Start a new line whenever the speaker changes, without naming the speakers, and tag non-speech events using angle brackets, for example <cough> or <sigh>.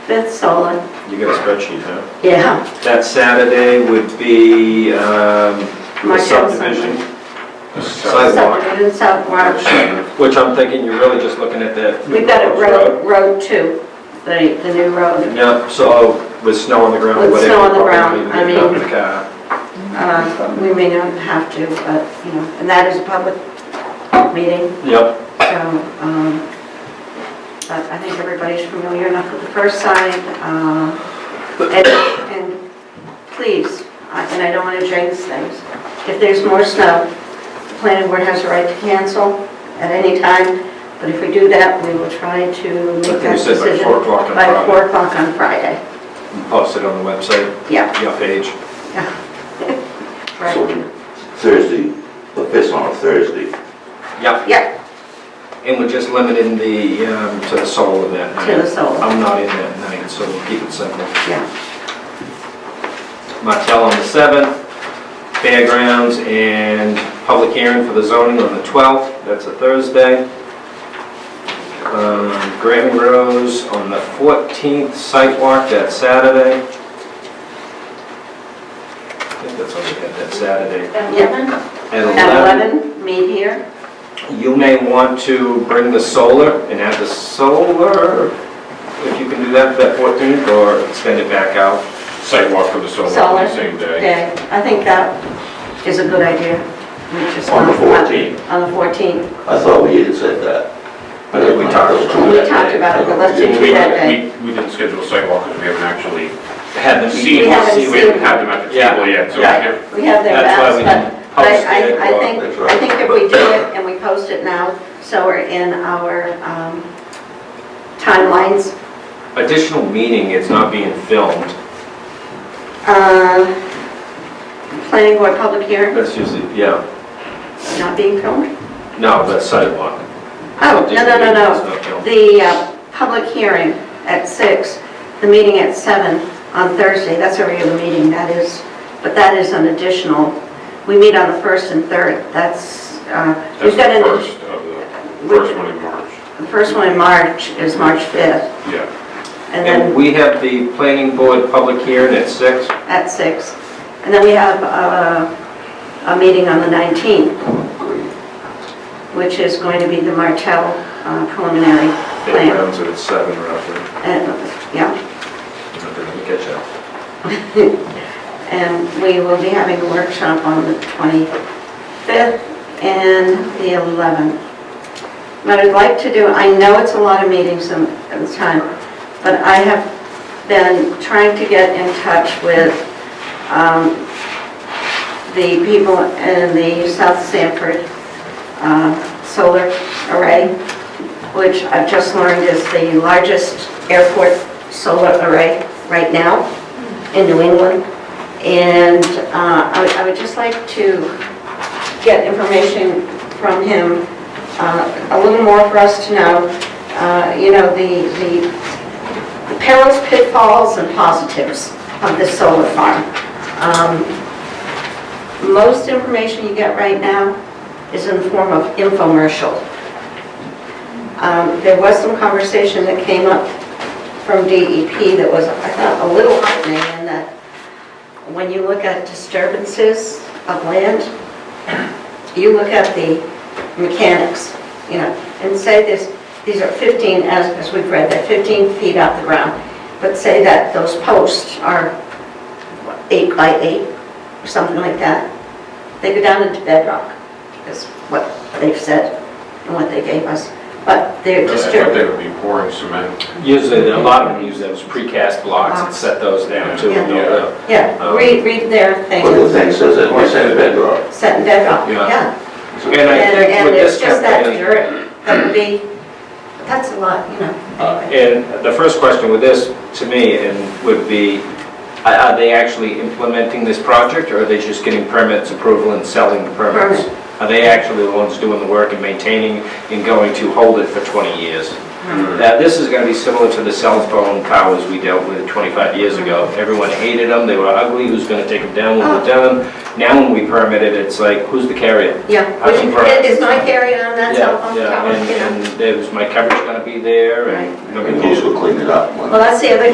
That's stolen.
You got a spreadsheet, huh?
Yeah.
That Saturday would be um, the
March
subdivision sidewalk,
Subdivision, sidewalk.
which I'm thinking you're really just looking at that.
We've got a road, road two, the, the new road.
Yeah, so with snow on the ground,
With
whatever.
snow on the ground,
probably need
I
to be a
mean-
public car.
Uh, We may not have to, but, you know, and that is a public meeting,
Yep,
so, um, but I think everybody's familiar enough with the first sign. uh, And, and please, I- and I don't want to jinx things, if there's more snow, the planning board has a right to cancel at any time, but if we do that, we will try to
I
make
think we
that
said by
decision
4 o'clock on
by
Friday.
4 o'clock on Friday.
And Post it on the website,
Yeah, <laughs>
your page.
right.
So Thursday, the fifth on a Thursday.
Yep,
Yeah,
and we're just limiting the, um, to the soul of that
to the
night.
soul,
I'm not in that night, so we'll keep it simple.
yeah.
Martell on the 7th, fairgrounds and public hearing for the zoning on the 12th, that's a Thursday. Um, Grammy Rose on the 14th, sidewalk, that's Saturday. I think that's all we had, that Saturday.
Yeah.
At
At 11, meet here.
11, you may want to bring the solar and have the solar, if you can do that for that 14th, or extend it back out.
sidewalk for the solar on
Solar.
the same day.
Okay, I think that is a good idea. We just
On the
want-
14th.
On the 14th.
I thought we had said that.
I think we talked about
We talked about it, but let's
We,
do it that day.
we, we didn't schedule a sidewalk because we haven't actually
Have them
seen,
We haven't
see, we
seen
haven't had them at the
Yeah.
table yet, so we
Right.
can't-
We have their
That's why
bounds,
we
but
didn't
I,
post
I- I
it. or-
think,
that's
I
right.
think if we do it and we post it now, so we're in our um, timelines.
additional meeting, it's not being filmed.
Uh, Planning board public hearing,
That's usually, yeah,
not being filmed.
no, that's sidewalk.
Oh, no, no, no, no.
It's not filmed.
The uh, public hearing at six, the meeting at seven on Thursday, that's a regular meeting, that is, but that is an additional, we meet on the first and third, that's, uh,
that's
we've got
the
an,
first of the,
we-
first one in March,
the first one in March is March 5th,
yeah.
and
And
then
we have the planning board public hearing at six.
at six, and then we have uh, a meeting on the 19th, which is going to be the Martell uh, preliminary plan.
Fairgrounds are at seven roughly.
And, yeah,
Let me catch up.
And we will be having a workshop on the 25th and the 11th. What I'd like to do, I know it's a lot of meetings in in time, but I have been trying to get in touch with um, the people in the South Sanford uh, Solar Array, which I've just learned is the largest airport solar array right now in New England. And uh, I would- I would just like to get information from him, uh, a little more for us to know, uh, you know, the the perils, pitfalls, and positives of the solar farm. Um, Most information you get right now is in the form of infomercial. Um, There was some conversation that came up from DEP that was, I thought, a little heartening in that when you look at disturbances of land, you look at the mechanics, you know, and say this, these are 15, as, as we've read, they're 15 feet off the ground, but say that those posts are what, eight by eight, or something like that. They go down into bedrock, is what they've said and what they gave us, but they're
I thought
disturbed.
they would be pouring cement,
Usually, a lot of them use those precast blocks and set those down too. and build it up.
Yeah, read, read their thing,
But the thing says that we said bedrock.
set in bedrock,
Yeah.
yeah.
And I
And,
think
and
with
it's
this
just that
campaign,
dirt, that would be, that's a lot, you know. anyway.
Uh, and the first question with this, to me, and would be, are are they actually implementing this project or are they just getting permits approval and selling the permits? Are they actually the ones doing the work and maintaining and going to hold it for 20 years? Now, this is going to be similar to the cell phone towers we dealt with 25 years ago. Everyone hated them, they were ugly, who's going to take them down when we're done? Now, when we permit it, it's like, who's the carrier?
Yeah,
I
would
think
you-
for-
is my carry on that cell phone
Yeah,
tower,
yeah,
you know?
and, and is my coverage going to be there? And
And those will clean it up. when-
Well, that's the other